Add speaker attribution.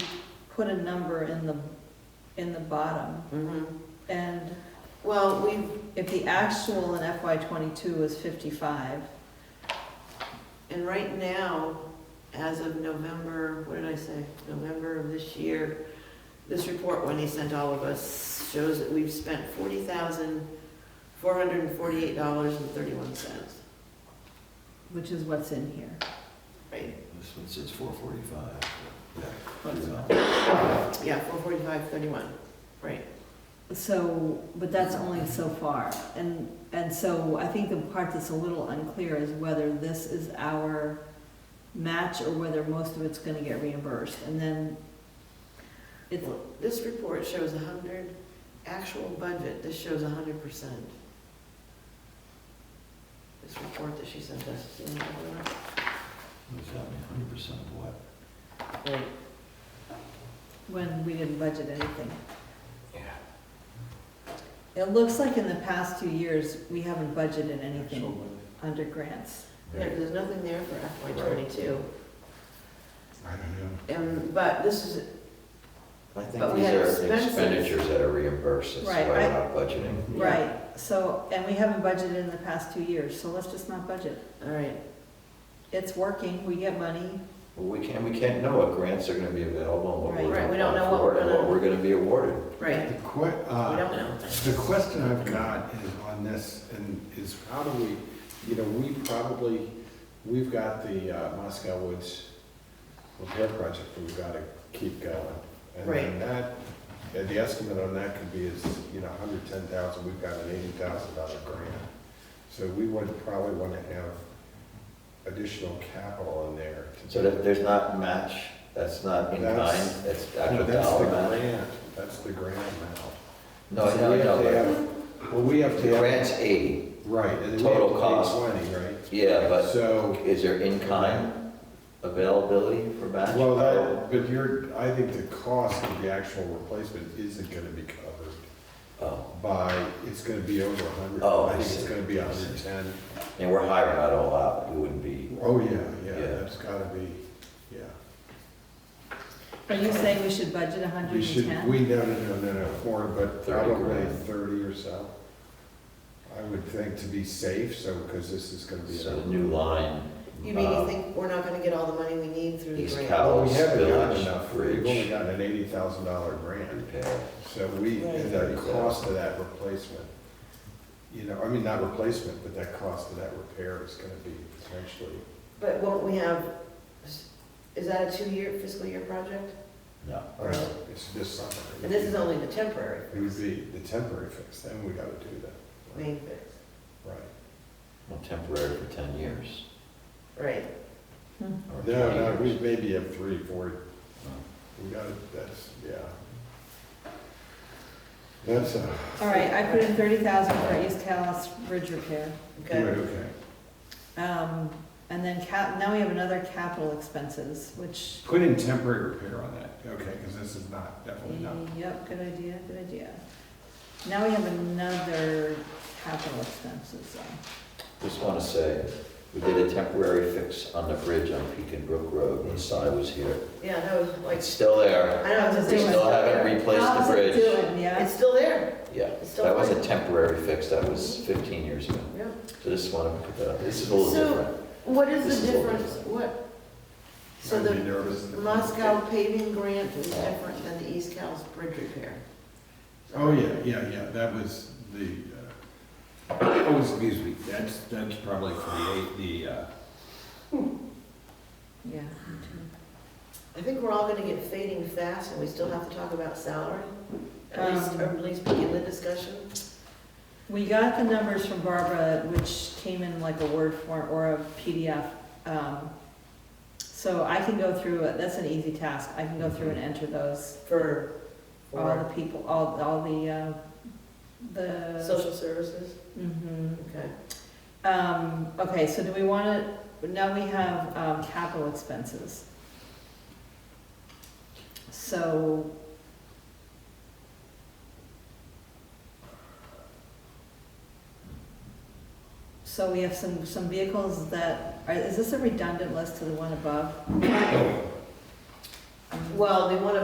Speaker 1: put a number in the, in the bottom.
Speaker 2: Mhm.
Speaker 1: And
Speaker 2: Well, we,
Speaker 1: if the actual in FY twenty-two was fifty-five,
Speaker 2: and right now, as of November, what did I say? November of this year, this report, when he sent all of us, shows that we've spent forty thousand, four hundred and forty-eight dollars and thirty-one cents.
Speaker 1: which is what's in here.
Speaker 2: Right,
Speaker 3: This one says four forty-five.
Speaker 1: What's-
Speaker 2: yeah, four forty-five, thirty-one, right.
Speaker 1: So, but that's only so far. And, and so I think the part that's a little unclear is whether this is our match or whether most of it's gonna get reimbursed. And then it's,
Speaker 2: Well, This report shows a hundred, actual budget, this shows a hundred percent. This report that she sent us. you know, whatever.
Speaker 3: hundred percent of what?
Speaker 1: when we didn't budget anything.
Speaker 3: Yeah.
Speaker 1: It looks like in the past two years, we haven't budgeted anything under grants.
Speaker 2: There- There's nothing there for FY twenty-two.
Speaker 3: I don't know.
Speaker 2: And, Um, but this is,
Speaker 4: I
Speaker 2: But
Speaker 4: think
Speaker 2: we
Speaker 4: these
Speaker 2: had
Speaker 4: are
Speaker 2: expenses.
Speaker 4: expenditures that are reimbursed, that's
Speaker 1: Right,
Speaker 4: why we're
Speaker 1: I-
Speaker 4: not budgeting.
Speaker 2: Yeah.
Speaker 1: Right, so, and we haven't budgeted in the past two years, so let's just not budget.
Speaker 2: all right,
Speaker 1: It's working, we get money,
Speaker 4: Well, we can't, we can't know what grants are gonna be available and what
Speaker 1: Right.
Speaker 4: we're
Speaker 2: Right, we
Speaker 4: gonna
Speaker 2: don't know
Speaker 4: apply
Speaker 2: what
Speaker 4: for
Speaker 2: we're
Speaker 4: and what
Speaker 2: gonna-
Speaker 4: we're gonna be awarded.
Speaker 2: right,
Speaker 5: The que,
Speaker 2: we
Speaker 5: uh,
Speaker 2: don't know.
Speaker 5: the question I've got is on this, and is how do we, you know, we probably, we've got the uh, Moscow Woods repair project, we've gotta keep going. And then
Speaker 2: Right.
Speaker 5: that, and the estimate on that could be is, you know, hundred ten thousand, we've got an eighty thousand dollar grant. So we would probably wanna have additional capital in there. to
Speaker 4: So
Speaker 5: do-
Speaker 4: that there's not match, that's not in kind,
Speaker 5: That's-
Speaker 4: that's
Speaker 5: No,
Speaker 4: actual
Speaker 5: That's the
Speaker 4: dollar amount.
Speaker 5: grant, that's the grant amount.
Speaker 4: No, I
Speaker 5: So
Speaker 4: know, I
Speaker 5: we have to
Speaker 4: know,
Speaker 5: have- Well, we have
Speaker 4: but the
Speaker 5: to have,
Speaker 4: grant's eighty,
Speaker 5: right, and then we
Speaker 4: total
Speaker 5: have to
Speaker 4: cost.
Speaker 5: pay twenty, right?
Speaker 4: yeah, but
Speaker 5: So,
Speaker 4: is there in kind availability for match?
Speaker 5: well, that, but you're, I think the cost of the actual replacement isn't gonna be covered
Speaker 4: Oh,
Speaker 5: by, it's gonna be over a hundred.
Speaker 4: Oh, I
Speaker 5: I think
Speaker 4: see.
Speaker 5: it's gonna be a hundred and ten.
Speaker 4: and we're hiring that all out, we wouldn't be,
Speaker 5: Oh, yeah, yeah,
Speaker 4: Yeah.
Speaker 5: that's gotta be, yeah.
Speaker 1: Are you saying we should budget hundred
Speaker 5: We
Speaker 1: and
Speaker 5: should,
Speaker 1: ten?
Speaker 5: we, no, no, no, no, no, more, but
Speaker 4: 30
Speaker 5: probably
Speaker 4: grand.
Speaker 5: thirty or so. I would think to be safe, so, because this is gonna be.
Speaker 4: so
Speaker 5: another-
Speaker 4: the new line.
Speaker 2: You mean you
Speaker 4: um,
Speaker 2: think we're not gonna get all the money we need through the
Speaker 4: East
Speaker 2: grant?
Speaker 4: Cal-
Speaker 5: Well, Oh, we haven't gotten
Speaker 4: Village
Speaker 5: enough, we've
Speaker 4: Bridge.
Speaker 5: only gotten an eighty thousand dollar grant,
Speaker 4: Repair.
Speaker 5: so we, and
Speaker 4: Right.
Speaker 5: the cost of that replacement, you know, I mean, not replacement, but that cost of that repair is gonna be potentially,
Speaker 2: But won't we have, is that a two-year fiscal year project?
Speaker 4: No.
Speaker 5: I don't know, uh, it's this summer.
Speaker 2: And this is only the temporary
Speaker 5: It would be the temporary fix, then we gotta do that.
Speaker 2: main fix,
Speaker 5: Right.
Speaker 4: Well, temporary for ten years.
Speaker 2: right?
Speaker 4: or 20
Speaker 5: No, no, we
Speaker 4: years.
Speaker 5: maybe have three, four,
Speaker 4: Oh.
Speaker 5: we gotta, that's, yeah. That's a,
Speaker 1: All right, I put in thirty thousand for East Callis Bridge repair.
Speaker 2: Okay,
Speaker 5: okay,
Speaker 1: Um, and then cap, now we have another capital expenses, which,
Speaker 5: put in temporary repair on that, okay, because this is not, definitely not
Speaker 1: yep, good idea, good idea. Now we have another capital expenses, um,
Speaker 4: Just want to say, we did a temporary fix on the bridge on Pekin Brook Road when Si was here.
Speaker 2: yeah, that was like,
Speaker 4: It's still there.
Speaker 2: I don't know.
Speaker 1: It's
Speaker 4: We still haven't replaced the
Speaker 1: how's it
Speaker 4: bridge.
Speaker 1: doing, yeah?
Speaker 2: It's still there,
Speaker 4: Yeah,
Speaker 2: It's still
Speaker 4: that was a
Speaker 2: there.
Speaker 4: temporary fix. That was fifteen years ago.
Speaker 2: yeah.
Speaker 4: So just want to put that up. This is a little
Speaker 2: So-
Speaker 4: different.
Speaker 2: What
Speaker 4: This
Speaker 2: is the
Speaker 4: is what we
Speaker 2: difference,
Speaker 4: do.
Speaker 2: what, so
Speaker 5: I'd be
Speaker 2: the
Speaker 5: nervous. if-
Speaker 2: Moscow paving grant is different than the East Cal's bridge repair?
Speaker 5: Oh, yeah, yeah, yeah, that was the, uh, oh, excuse me, that's, that's probably for the, eight- the, uh,
Speaker 1: Yeah.
Speaker 2: I think we're all gonna get fading fast, and we still have to talk about salary, at
Speaker 1: Um,
Speaker 2: least, or at least begin the discussion.
Speaker 1: We got the numbers from Barbara, which came in like a Word form or a PDF. um, So I can go through, it. that's an easy task, I can go through and enter those,
Speaker 2: For,
Speaker 1: all
Speaker 2: for
Speaker 1: the people, all, all the, uh, the.
Speaker 2: social services,
Speaker 1: Mhm.
Speaker 2: okay.
Speaker 1: Um, okay, so do we wanna, now we have, um, capital expenses. So. So we have some, some vehicles that, are, is this a redundant list to the one above? Um,
Speaker 2: Well, they wanna